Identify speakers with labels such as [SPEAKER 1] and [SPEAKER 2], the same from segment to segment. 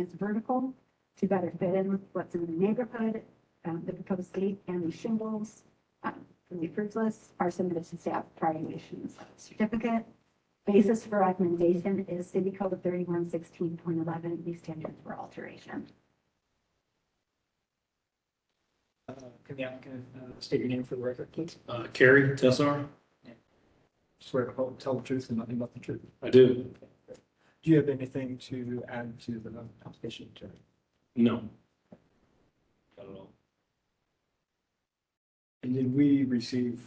[SPEAKER 1] is vertical to better fit in with what's in the neighborhood, um, the proposed gate and the shingles. um, From the approved list are submitted to staff prior to issuance of the certificate. Basis for recommendation is City Code thirty-one sixteen point eleven, these standards for alteration.
[SPEAKER 2] Uh, Can the applicant uh, state your name for the record, please?
[SPEAKER 3] Uh, Carrie Tessar?
[SPEAKER 2] Swear to hold- tell the truth and nothing but the truth.
[SPEAKER 3] I do.
[SPEAKER 2] Do you have anything to add to the application, Jerry?
[SPEAKER 3] No. Not at all.
[SPEAKER 2] And did we receive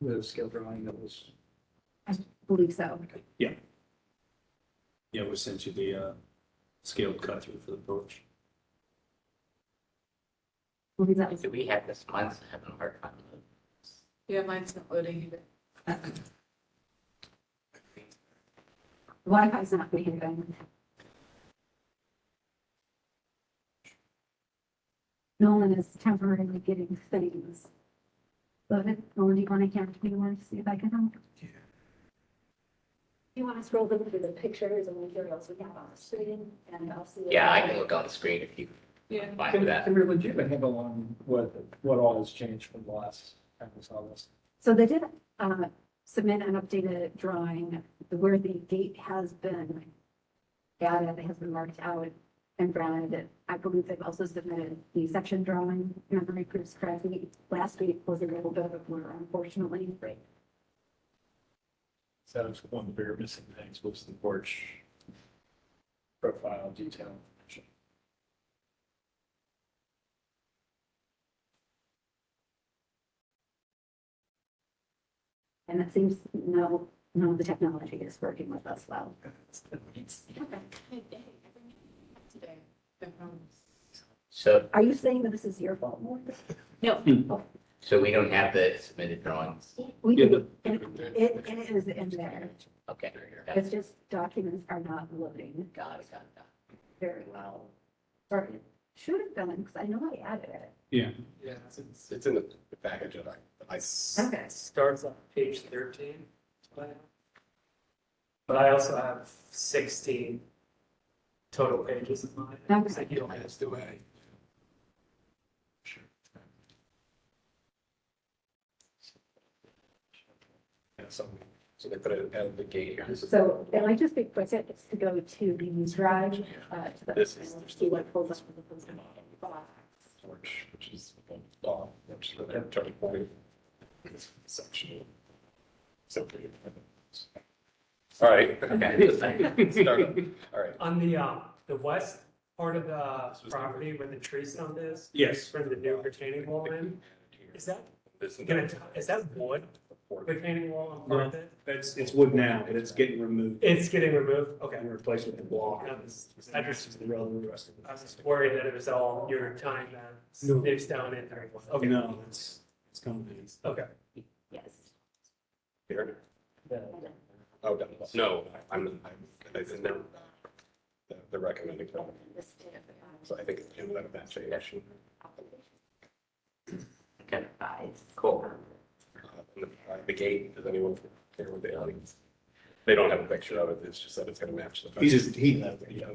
[SPEAKER 2] the scale drawing that was?
[SPEAKER 1] Believe so.
[SPEAKER 3] Yeah, we sent you the, uh, scaled cut through for the porch.
[SPEAKER 1] Believe that was
[SPEAKER 4] Do we have this mine's having a hard time?
[SPEAKER 5] Yeah, mine's not loading either.
[SPEAKER 1] Wi-Fi's not behaving. Nolan is temporarily getting things. Loaded, Nolan, do you want to hand me one to see if I can help? You want to scroll down to the pictures and materials we have on the screen and I'll see. if-
[SPEAKER 4] Yeah, I can look on the screen if you
[SPEAKER 5] Yeah.
[SPEAKER 4] find
[SPEAKER 2] Can
[SPEAKER 4] that.
[SPEAKER 2] can we legit handle on what, what all has changed from the last time we saw this?
[SPEAKER 1] So they did uh, submit an updated drawing where the gate has been added, it has been marked out and branded. I believe they've also submitted the section drawing, if memory proves correctly. Last week was a little bit of a blur, unfortunately.
[SPEAKER 3] So that was one of the bigger missing things was the porch profile detail.
[SPEAKER 1] And it seems no, no, the technology is working with us well.
[SPEAKER 5] Today, they're home.
[SPEAKER 4] So,
[SPEAKER 1] Are you saying that this is your fault, Morgan?
[SPEAKER 5] No.
[SPEAKER 4] so we don't have the submitted drawings?
[SPEAKER 1] We,
[SPEAKER 3] Yeah,
[SPEAKER 1] it,
[SPEAKER 3] but-
[SPEAKER 1] it it is in there.
[SPEAKER 4] Okay. Got it,
[SPEAKER 1] It's just documents are not loading
[SPEAKER 4] got it, got it. got
[SPEAKER 1] very well. Or it should have been, because I know I added it.
[SPEAKER 3] Yeah.
[SPEAKER 6] Yeah, it's- it's, it's in the package that I, I s-
[SPEAKER 1] Okay.
[SPEAKER 6] Starts on page thirteen. But I also have sixteen total pages of mine.
[SPEAKER 1] Okay.
[SPEAKER 6] Like, you don't have to wait.
[SPEAKER 3] Yeah, so, so they put it at the gate here. This is-
[SPEAKER 1] So, and I just be quick, it's to go to the news drive, uh, to the,
[SPEAKER 3] This is-
[SPEAKER 1] see what pulls up with the post box.
[SPEAKER 3] Porch, which is, uh, which is the turning point. This section. So. All right.
[SPEAKER 4] Okay.
[SPEAKER 3] Start up. All right.
[SPEAKER 6] On the, um, the west part of
[SPEAKER 3] This
[SPEAKER 6] the
[SPEAKER 3] was-
[SPEAKER 6] property where the tree stump is,
[SPEAKER 3] Yes.
[SPEAKER 6] for the new retaining wall in, is that,
[SPEAKER 3] This is-
[SPEAKER 6] gonna, is that wood retaining wall on part of it?
[SPEAKER 3] It's, it's wood now, but it's getting removed
[SPEAKER 6] It's getting removed, okay.
[SPEAKER 3] and replaced with block.
[SPEAKER 6] I was I just,
[SPEAKER 3] rest
[SPEAKER 6] I was just worried that it was all your time that sniffs down in there. Okay.
[SPEAKER 3] No, it's, it's coming in.
[SPEAKER 6] Okay.
[SPEAKER 1] Yes.
[SPEAKER 3] Here.
[SPEAKER 6] The-
[SPEAKER 3] Oh, no, no, I'm, I'm, it's in there. The- The recommended, plan. so I think it's in that that section.
[SPEAKER 4] Okay, cool.
[SPEAKER 3] Uh, and The uh, the gate, does anyone care what they, they don't have a picture of it, it's just that it's gonna match the.
[SPEAKER 7] He just- he-
[SPEAKER 3] Yeah.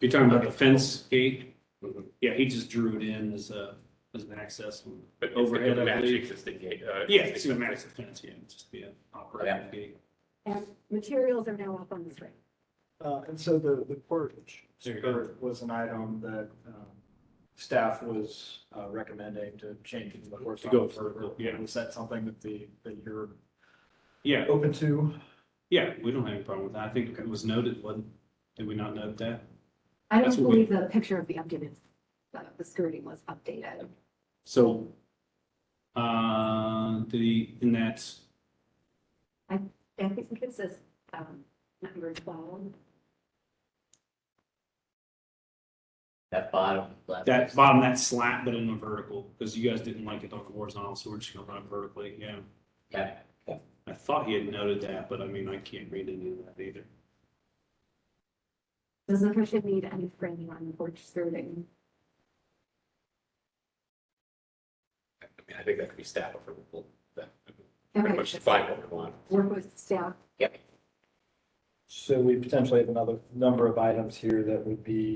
[SPEAKER 7] You're talking about the fence gate?
[SPEAKER 3] Mhm.
[SPEAKER 7] Yeah, he just drew it in as a, as an access.
[SPEAKER 3] But it's
[SPEAKER 7] Overhead,
[SPEAKER 3] gonna
[SPEAKER 7] I
[SPEAKER 3] match
[SPEAKER 7] believe.
[SPEAKER 3] Existing gate. uh,
[SPEAKER 7] Yeah, it's
[SPEAKER 3] existing-
[SPEAKER 7] a massive fence, yeah, it'd just be an
[SPEAKER 4] Yeah.
[SPEAKER 7] operating gate.
[SPEAKER 1] And materials are now up on the screen.
[SPEAKER 2] Uh, and so the, the portage
[SPEAKER 7] There you go.
[SPEAKER 2] skirt was an item that, um, staff was uh, recommending to change into the horse.
[SPEAKER 7] To go
[SPEAKER 2] officer.
[SPEAKER 7] vertical, yeah.
[SPEAKER 2] Was that something that the, that you're
[SPEAKER 7] Yeah, oh,
[SPEAKER 2] open to?
[SPEAKER 7] yeah, we don't have any problem with that. I think it was noted, wasn't, did we not note that?
[SPEAKER 1] I don't
[SPEAKER 7] That's what we-
[SPEAKER 1] believe the picture of the updated, uh, the skirting was updated.
[SPEAKER 7] So, uh, the, in that,
[SPEAKER 1] I think this is, um, number twelve.
[SPEAKER 4] That bottom left.
[SPEAKER 7] that bottom, that slat, but in a vertical, because you guys didn't like it on the horizontal, so we're just gonna run it vertically, yeah.
[SPEAKER 4] Yeah.
[SPEAKER 7] I thought he had noted that, but I mean, I can't read any of that either.
[SPEAKER 1] Does the commission need any framing on the porch skirting?
[SPEAKER 3] I mean, I think that could be staff approval, that,
[SPEAKER 1] Okay,
[SPEAKER 3] pretty much define what we want.
[SPEAKER 1] Work with staff.
[SPEAKER 2] So we potentially have another number of items here that would be